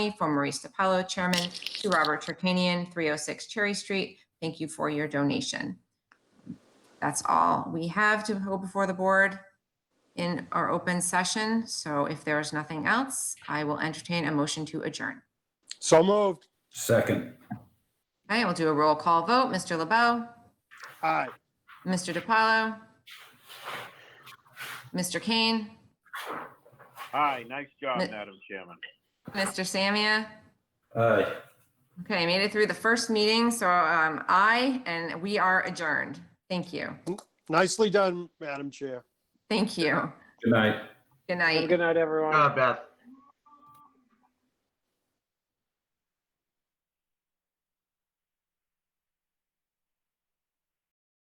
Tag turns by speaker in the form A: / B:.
A: from Maurice DiPaolo, Chairman, to Robert Turkanian, 306 Cherry Street. Thank you for your donation. That's all we have to go before the board in our open session. So if there is nothing else, I will entertain a motion to adjourn.
B: So moved.
C: Second,
A: I will do a roll call vote. Mr. LeBeau,
B: Aye.
A: Mr. DiPaolo, Mr. Kane,
D: Hi, nice job,
A: Mi-
D: Madam Chairman.
A: Mr. Samia. Uh,
C: aye.
A: Okay, I made it through the first meeting, so um, aye, and we are adjourned. Thank you.
B: Nicely done, Madam Chair.
A: Thank you.
C: Good night.
A: Good night.
E: Good night, everyone.
F: Good job, Beth.